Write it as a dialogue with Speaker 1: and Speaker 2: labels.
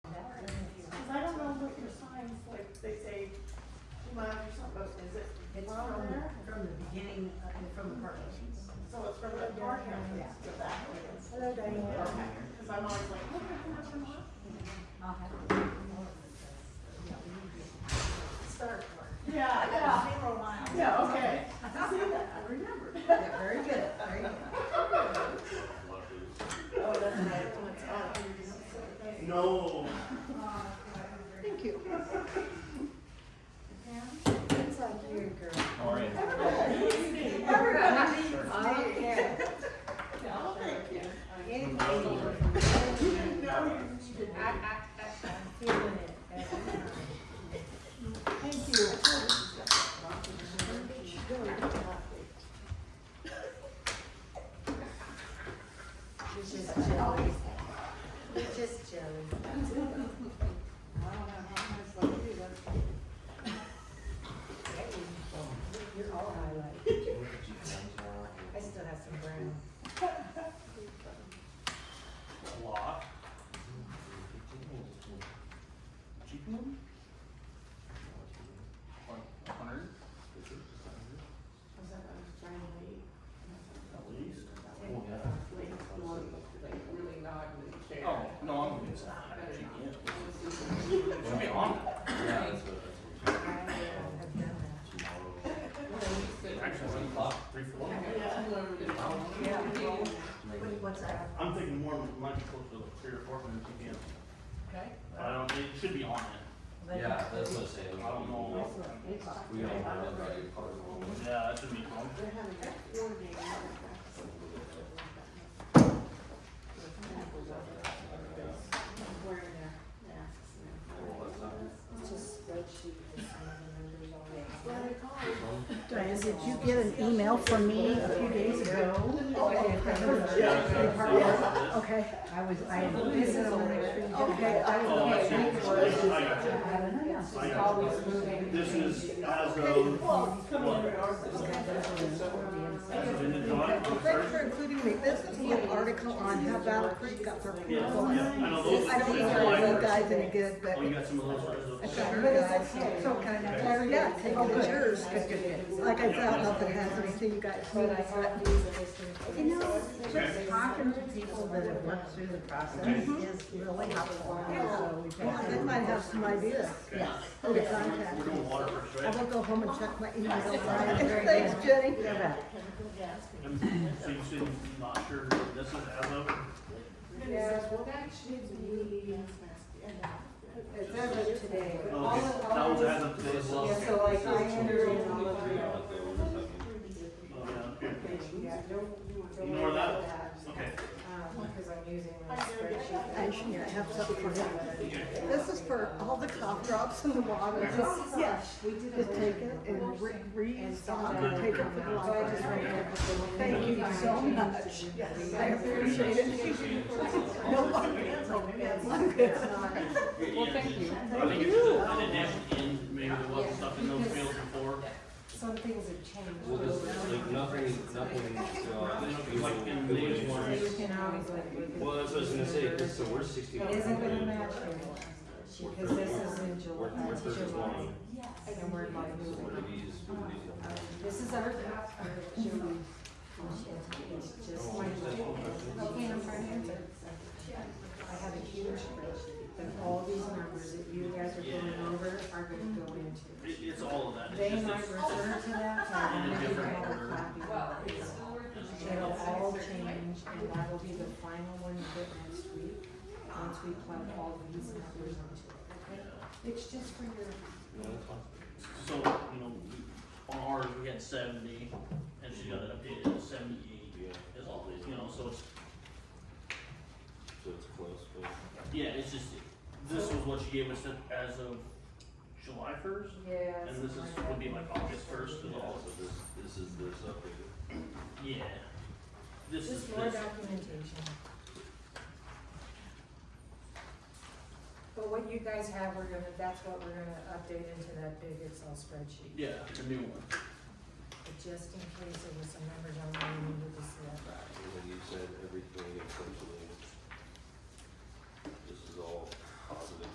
Speaker 1: uh,
Speaker 2: from the purchase. So it's from the door counters to the applicants.
Speaker 1: Hello, Diane.
Speaker 2: Okay, because I'm always like, look at the person what?
Speaker 1: Start.
Speaker 2: Yeah, yeah.
Speaker 1: Zero miles.
Speaker 2: Yeah, okay. I see that, I remember.
Speaker 1: Yeah, very good, very good.
Speaker 2: Oh, that's right. Oh, it's on.
Speaker 3: No.
Speaker 1: Thank you. It's like you, girl.
Speaker 3: How are you?
Speaker 1: Everybody needs me.
Speaker 2: No, thank you.
Speaker 1: Anything.
Speaker 2: You didn't know you needed
Speaker 1: I, I,
Speaker 2: that.
Speaker 1: I, I'm feeling it. Thank you. You're just jelly. You're just jelly. I don't know how much like you do. You're all highlight. I still have some brown.
Speaker 3: A lot. Chicken? Like hundred?
Speaker 2: Was that I was trying to be,
Speaker 3: At least.
Speaker 2: like, more, like, really not in the chair.
Speaker 3: Oh, no, I'm gonna use that. Should be on.
Speaker 1: I have done that.
Speaker 3: Actually, it's o'clock, three for one.
Speaker 2: Yeah.
Speaker 1: Yeah. well, What, what's that?
Speaker 3: I'm thinking more much closer to three or four than two p.m.
Speaker 1: Okay.
Speaker 3: But I don't, it should be on it.
Speaker 4: Yeah, that's what I'm
Speaker 3: I
Speaker 4: saying.
Speaker 3: don't know.
Speaker 4: We don't know about your part of
Speaker 3: Yeah, that should be on.
Speaker 2: They're having that coordinating. Wearing their masks now.
Speaker 1: It's just spreadsheet with some of the numbers on it.
Speaker 2: Well, they call it.
Speaker 5: Diane, did you get an email from me a few days ago?
Speaker 3: Yeah.
Speaker 5: Okay, I was, I had
Speaker 1: This is over there.
Speaker 5: Okay, I
Speaker 3: Oh, I see. I got you.
Speaker 5: I don't know.
Speaker 3: I got you. This is as of, as of in the July,
Speaker 5: Well, thanks for including me. This is the article on how Battle Creek got their
Speaker 3: Yeah, yeah, I know those.
Speaker 5: I don't think
Speaker 3: those are
Speaker 5: our
Speaker 3: mine.
Speaker 5: little guy's any good, but
Speaker 3: Oh, you got some of those. right?
Speaker 5: it's our guys, so kind of, yeah, take it as yours. 'cause Like I said, I don't know if it has anything you guys need,
Speaker 1: But I have
Speaker 5: but.
Speaker 1: these of this.
Speaker 5: You know, just talking to people that have worked through the process is really helpful. So we've
Speaker 1: Yeah,
Speaker 5: had-
Speaker 1: they
Speaker 5: They might have some ideas.
Speaker 3: Okay.
Speaker 5: Okay, contact.
Speaker 3: We're doing water first,
Speaker 5: I
Speaker 3: right?
Speaker 5: will go home and check my email.
Speaker 1: Very
Speaker 5: Thanks, Jenny.
Speaker 3: And So you said you're not sure this is as of,
Speaker 1: Yeah,
Speaker 2: well, that should be.
Speaker 1: It says it today, but all
Speaker 3: oh,
Speaker 1: of
Speaker 3: okay, that was
Speaker 1: ours-
Speaker 3: as of today's
Speaker 4: Well,
Speaker 1: Yeah, so like I entered in all of them.
Speaker 3: Oh, yeah, okay.
Speaker 1: Yeah, don't, don't
Speaker 3: Ignore
Speaker 1: worry about
Speaker 3: that.
Speaker 1: that.
Speaker 3: Okay.
Speaker 1: Um, because I'm using my
Speaker 5: I
Speaker 1: spreadsheet.
Speaker 5: should have something for him. This is for all the cough drops in the water. Just, yeah,
Speaker 1: We did a
Speaker 5: just take it and re, restock and take it for the
Speaker 1: So I just ran
Speaker 5: library.
Speaker 1: up with the.
Speaker 5: Thank you so much. I appreciate it.
Speaker 1: It's not,
Speaker 3: Well, thank you. I think it's just an addition in, maybe there wasn't stuff in those fields before.
Speaker 1: some things have changed.
Speaker 4: Well, this is like nothing, nothing,
Speaker 1: So you
Speaker 4: uh.
Speaker 1: can always like. look at-
Speaker 4: Well, that's what I was gonna say, cause so we're sixty.
Speaker 1: It Isn't gonna match anymore, because this is in July,
Speaker 4: We're, we're
Speaker 1: uh, July,
Speaker 4: thirty-one.
Speaker 1: and we're like
Speaker 4: So what are
Speaker 1: moving.
Speaker 4: these, what are these?
Speaker 1: This is our draft for July. It's just my, okay, I'm trying to answer. I have a huge spreadsheet, that all these numbers that you guys are going over are gonna go into.
Speaker 3: It, it's all of that.
Speaker 1: They
Speaker 3: It's
Speaker 1: might
Speaker 3: just,
Speaker 1: refer to that, but I
Speaker 3: In a
Speaker 1: don't think I
Speaker 3: different
Speaker 1: have a
Speaker 3: order.
Speaker 1: copy of it. It'll all change, and that will be the final one you get next week, once we plug all these numbers into it, okay? It's just for your,
Speaker 4: No, that's fine.
Speaker 3: so, you know, on ours, we had seventy, and she got it updated to seventy-eight.
Speaker 4: Yeah,
Speaker 3: It's all, you know, so it's,
Speaker 4: so it's close, but.
Speaker 3: yeah, it's just, this was what she gave us as of July first?
Speaker 1: yeah.
Speaker 3: And this is, would be like August first
Speaker 4: Yeah,
Speaker 3: and all,
Speaker 4: so this, this is this updated.
Speaker 3: yeah. This is,
Speaker 1: Just more
Speaker 3: this,
Speaker 1: documentation. But what you guys have, we're gonna, that's what we're gonna update into that big Excel spreadsheet,
Speaker 3: yeah, the new one.
Speaker 1: but just in case there was some numbers on there you needed to see.
Speaker 4: And then you said everything essentially. This is all